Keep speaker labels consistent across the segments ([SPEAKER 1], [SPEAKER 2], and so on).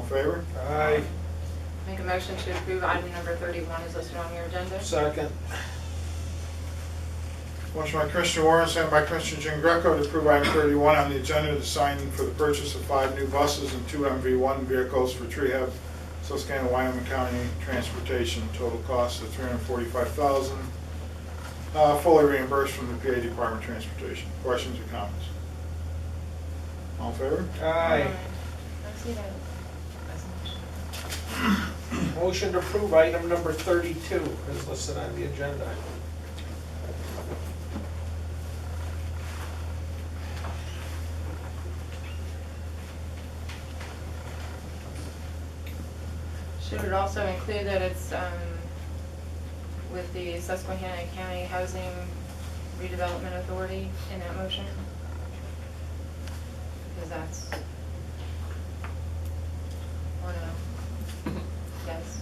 [SPEAKER 1] favor?
[SPEAKER 2] Aye.
[SPEAKER 3] Make a motion to approve item number 31 is listed on your agenda.
[SPEAKER 2] Second.
[SPEAKER 1] Motion by Commissioner Warren, second by Commissioner Jean Greco to approve item 31 on the agenda to sign for the purchase of five new buses and two MV1 vehicles for Trehab, Susquehanna, Wyoming County Transportation, total cost of $345,000, uh, fully reimbursed from the PA Department of Transportation. Questions or comments? All in favor?
[SPEAKER 2] Aye.
[SPEAKER 3] Let's see that resolution.
[SPEAKER 2] Motion to approve item number 32 is listed on the agenda.
[SPEAKER 3] Should it also include that it's um, with the Susquehanna County Housing Redevelopment Authority in that motion? Because that's... Oh, no. Yes.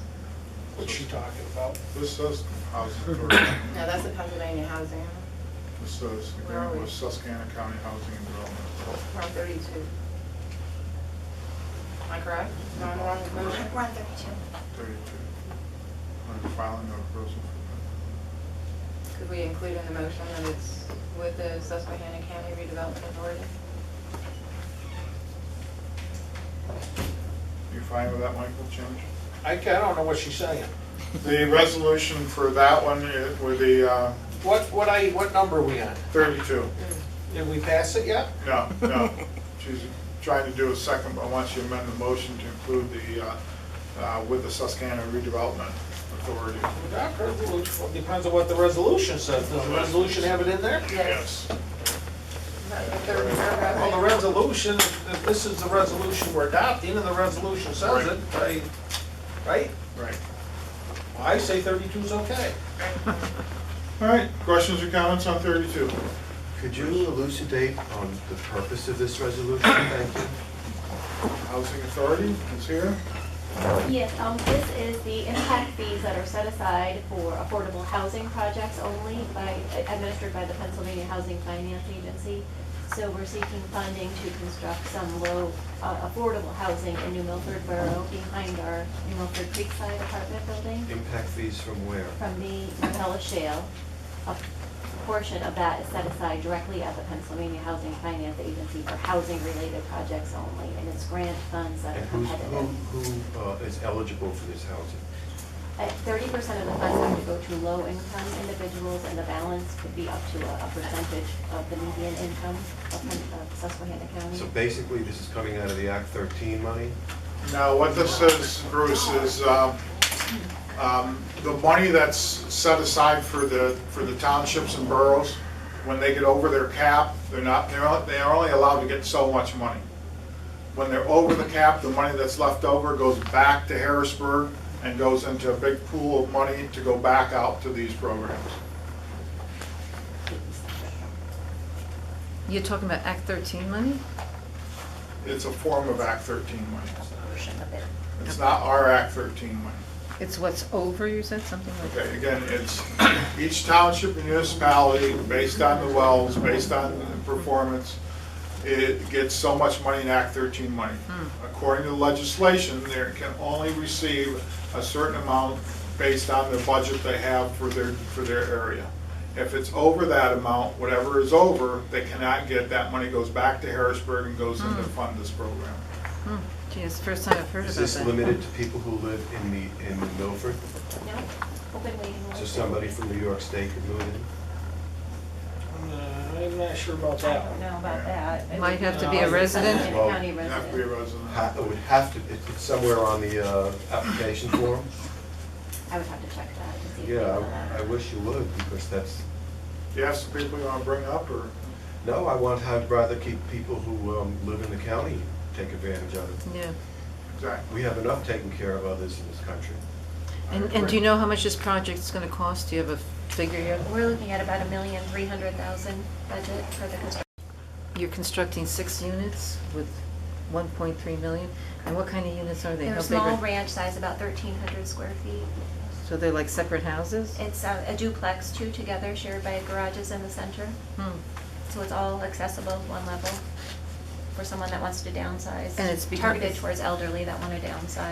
[SPEAKER 2] What's she talking about?
[SPEAKER 1] This says housing authority.
[SPEAKER 3] No, that's the Pennsylvania Housing,
[SPEAKER 1] This says agreement with Susquehanna County Housing and Development Authority.
[SPEAKER 3] Route 32. Am I correct? Am I wrong with the motion?
[SPEAKER 4] One thirty-two.
[SPEAKER 1] 32. Under filing of proposal.
[SPEAKER 3] Could we include in the motion that it's with the Susquehanna County Redevelopment Authority?
[SPEAKER 1] You fine with that, Michael, change?
[SPEAKER 2] I ca- I don't know what she's saying.
[SPEAKER 1] The resolution for that one i- with the uh,
[SPEAKER 2] What, what I, what number are we on?
[SPEAKER 1] 32.
[SPEAKER 2] Did we pass it yet?
[SPEAKER 1] No, no. She's trying to do a second, but once you amend the motion to include the, uh, uh, with the Susquehanna Redevelopment Authority.
[SPEAKER 2] That resolution- Depends on what the resolution says. Does the resolution have it in there?
[SPEAKER 3] Yes. Not the third paragraph.
[SPEAKER 2] Well, the resolution, if this is the resolution we're adopting and the resolution says it, I, right?
[SPEAKER 1] Right.
[SPEAKER 2] I say 32 is okay.
[SPEAKER 1] All right, questions or comments on 32?
[SPEAKER 5] Could you elucidate on the purpose of this resolution? Thank you.
[SPEAKER 1] Housing Authority is here.
[SPEAKER 4] Yes, um, this is the impact fees that are set aside for affordable housing projects only by, administered by the Pennsylvania Housing Finance Agency. So we're seeking funding to construct some low, uh, affordable housing in New Milford Borough behind our New Milford Creekside apartment building.
[SPEAKER 5] Impact fees from where?
[SPEAKER 4] from the Marcellus Shale. A portion of that is set aside directly at the Pennsylvania Housing Finance Agency for housing-related projects only, and it's grant funds that
[SPEAKER 5] And
[SPEAKER 4] are
[SPEAKER 5] who's, who,
[SPEAKER 4] competitive.
[SPEAKER 5] who uh, is eligible for this housing?
[SPEAKER 4] At thirty percent of the funds have to go to low-income individuals, and the balance could be up to a a percentage of the median income of Pen- of Susquehanna
[SPEAKER 5] So
[SPEAKER 4] County.
[SPEAKER 5] basically, this is coming out of the Act thirteen money?
[SPEAKER 1] Now, what this is, Bruce, is um, um, the money that's set aside for the, for the townships and boroughs, when they get over their cap, they're not, they're, on- they are only allowed to get so much money. When they're over the cap, the money that's left over goes back to Harrisburg and goes into a big pool of money to go back out to these programs.
[SPEAKER 6] You're talking about Act 13 money?
[SPEAKER 1] It's a form of Act 13 money. It's not our Act 13 money.
[SPEAKER 6] It's what's over, you said, something like that?
[SPEAKER 1] Okay, again, it's each township and municipality, based on the wells, based on the performance, it gets so much money in Act 13 money.
[SPEAKER 6] Hmm.
[SPEAKER 1] According to legislation, they can only receive a certain amount based on the budget they have for their, for their area. If it's over that amount, whatever is over, they cannot get, that money goes back to Harrisburg and goes in to fund this program.
[SPEAKER 6] Hmm, Gee, it's the first time I've heard about
[SPEAKER 5] Is
[SPEAKER 6] that.
[SPEAKER 5] this limited to people who live in the, in Milford?
[SPEAKER 4] No, open waiting list.
[SPEAKER 5] So somebody from New York State could move in?
[SPEAKER 2] Uh, I'm not sure about that one.
[SPEAKER 4] know about that. It would
[SPEAKER 6] Might have to be a
[SPEAKER 4] Susquehanna
[SPEAKER 6] resident?
[SPEAKER 5] Well,
[SPEAKER 4] County
[SPEAKER 1] You have to
[SPEAKER 4] resident.
[SPEAKER 1] be a resident.
[SPEAKER 5] Ha- It would have to, it- it's somewhere on the uh, application form?
[SPEAKER 4] I would have to check that to see. if they
[SPEAKER 5] Yeah,
[SPEAKER 4] allow that.
[SPEAKER 5] I- I wish you would, because that's,
[SPEAKER 1] Do you have some people you want to bring up, or?
[SPEAKER 5] no, I want, I'd rather keep people who um, live in the county take advantage of it.
[SPEAKER 6] Yeah.
[SPEAKER 1] Exactly.
[SPEAKER 5] We have enough taken care of others in this country.
[SPEAKER 6] And, and do you know how much this project's gonna cost? Do you have a figure yet?
[SPEAKER 4] We're looking at about a million, three hundred thousand budget for the construction.
[SPEAKER 6] You're constructing six units with 1.3 million? And what kind of units are they?
[SPEAKER 4] They're
[SPEAKER 6] How
[SPEAKER 4] a
[SPEAKER 6] big
[SPEAKER 4] small
[SPEAKER 6] are-
[SPEAKER 4] ranch size, about thirteen hundred square feet.
[SPEAKER 6] So they're like separate houses?
[SPEAKER 4] It's uh, a duplex, two together, shared by garages in the center,
[SPEAKER 6] Hmm.
[SPEAKER 4] so it's all accessible, one level. for someone that wants to downsize.
[SPEAKER 6] And it's because-
[SPEAKER 4] Targeted towards elderly that want to downsize.